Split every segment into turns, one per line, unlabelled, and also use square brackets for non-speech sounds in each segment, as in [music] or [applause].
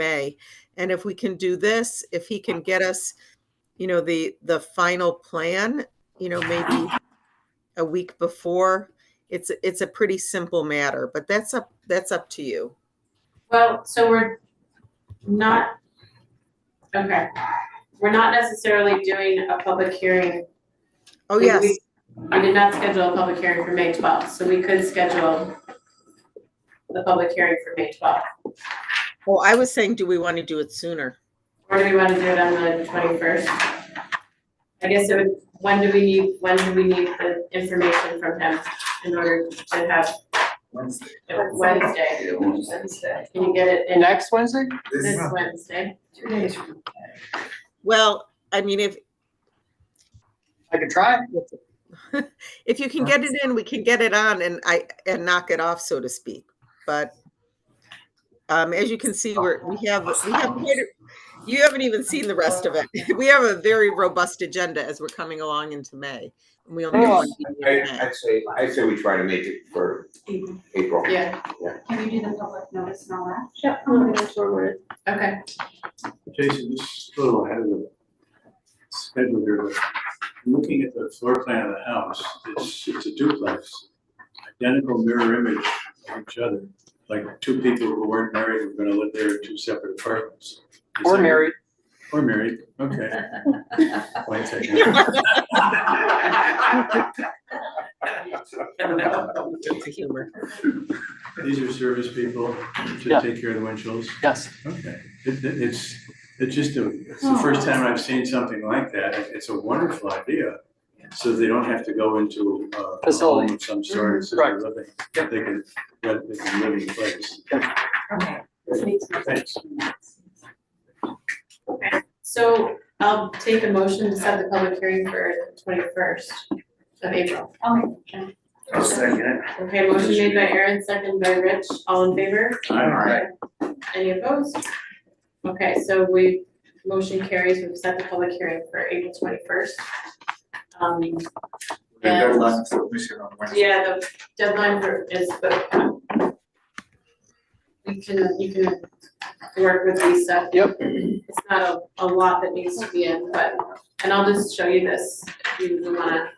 May. And if we can do this, if he can get us, you know, the, the final plan, you know, maybe a week before, it's, it's a pretty simple matter, but that's up, that's up to you.
Well, so we're not, okay, we're not necessarily doing a public hearing.
Oh,
We-
yes,
We we did not schedule a public hearing for May twelfth, so we could schedule the public hearing for May twelfth.
well, I was saying, do we want to do it sooner?
Or do we want to do it on the twenty-first? I guess it would, when do we need, when do we need the information from him in order to have? Wednesday. Wednesday. Can you get it in
Next Wednesday?
this Wednesday?
Two days from
Well, I mean, if,
I could try.
if you can get it in, we can get it on and I, and knock it off, so to speak. But um, as you can see, we're, we have, we have,
Oh.
quite a- you haven't even seen the rest of it. [laughs] We have a very robust agenda as we're coming along into May. and We only. have one meeting
Oh, I,
in May.
I'd say, I'd say we try to make it for
April.
April.
Yeah,
Can you do the public notice and all that?
Yep, I'm gonna go forward. okay.
Jason, just a little ahead of the schedule here, but looking at the floor plan of the house, it's, it's a duplex. Identical mirror image of each other, like two people who weren't married were gonna live there in two separate apartments. Is
Or
that-
married.
Or married, okay. Wait a second.
[laughs]
Sense of humor.
These are service people to
Yeah.
take care of the windshields.
Yes.
Okay, it, it- it's, it's just a, it's the first time I've seen something like that, It- it's a wonderful idea. So they don't have to go into uh, a
Facility.
home of some sort, so
Right.
they're living, they can, that they can live in place.
Okay.
Thanks.
So I'll take a motion to set the public hearing for twenty-first of April.
I'll
Okay, motion made by Aaron, second by Rich, all in favor?
Aye.
Any opposed? Okay, so we, motion carries, we've set the public hearing for April twenty-first. Um,
The
and,
deadline for submission on Wednesday.
yeah, the deadline for is, but we can, you can work with Lisa.
Yep.
It's not a, a lot that needs to be in, but, and I'll just show you this, if you wanna.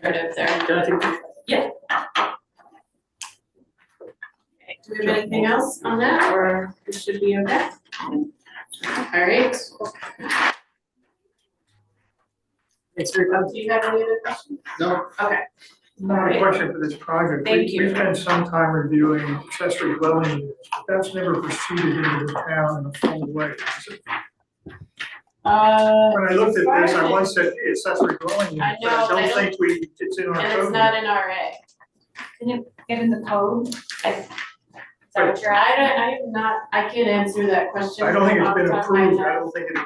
Narrative there. Yeah. Okay, Do we have anything else on that, or we should be okay? Alright. Do you have any other questions?
No.
Okay.
Not a question for this project. We-
Thank you.
We spent some time reviewing accessory dwelling units, but that's never proceeded into the town in a full way.
Uh.
When I looked at this, I once said, hey, accessory dwelling
I
unit, but I
know, I
don't
don't-
think we, it's in our
And it's
code.
not an RA.
Get in the code. Is that what you're
I
at?
don't, I am not, I can't answer that question.
I don't think it's
off the
been
top of my
approved,
head.
I don't think it,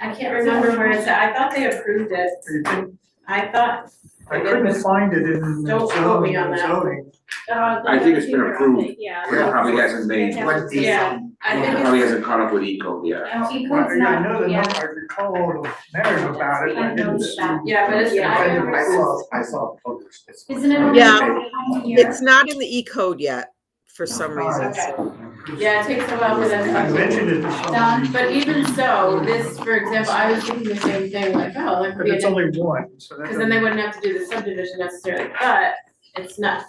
I can't remember where it's at, I thought they approved it,
I didn't-
I thought,
I couldn't find it in the
Don't quote me
zoning,
on
the
that.
zoning.
uh.
I think it's been approved.
Yeah.
It probably hasn't made, it
What
Yeah. I think
probably
it's,
hasn't caught up with Eco yet.
No, E
I
code's
I know
not,
the,
yeah.
number- I recall the narrative about it, but I
I
didn't.
noticed that.
yeah, but it's, I
Yeah.
remember-
I saw, I saw photos.
Isn't it? only
Yeah.
one
[laughs]
year?
It's not in the E code yet, for some reason.
okay. Yeah, it takes a while for
I
them to.
mentioned it to
Done,
somebody,
But even so, this, for example, I was thinking the same thing, like, oh, like,
but
we
it's only one, so that
Cause then
doesn't.
they wouldn't have to do the subdivision necessarily, but it's not,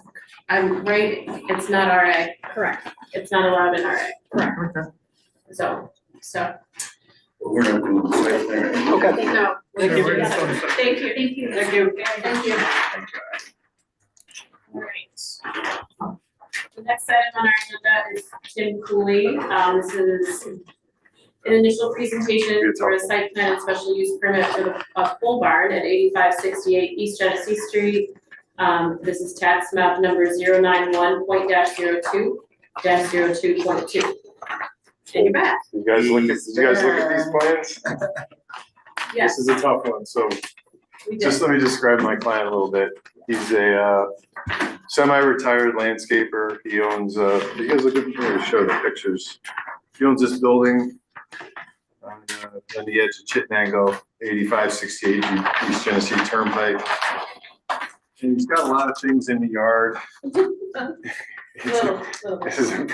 I'm right, it's not RA. Correct. It's not allowed in RA,
Okay.
so, so,
We're not doing the same thing.
Okay.
no.
Thank
Okay,
you.
we're just on-
Thank you.
Thank you.
Thank you. Thank you. All right. The next item on our agenda is Tim Cooley. Um, this is an initial presentation for a site plan and special use permit for the, a pole barn at eighty-five sixty-eight East Genesee Street. Um, this is tax map number 91 point dash zero two, dash zero two point two. And you're back.
You guys look at, you guys look at these plans?
Yes,
This is a tough one, so
we did.
just let me describe my client a little bit. He's a uh, semi-retired landscaper. He owns, uh, you guys look at, I'm gonna show the pictures. He owns this building on, uh, on the edge of Chittenango, eighty-five sixty-eight East Genesee Turnpike. And he's got a lot of things in the yard. It's a-
oh.
Little, little.
This is a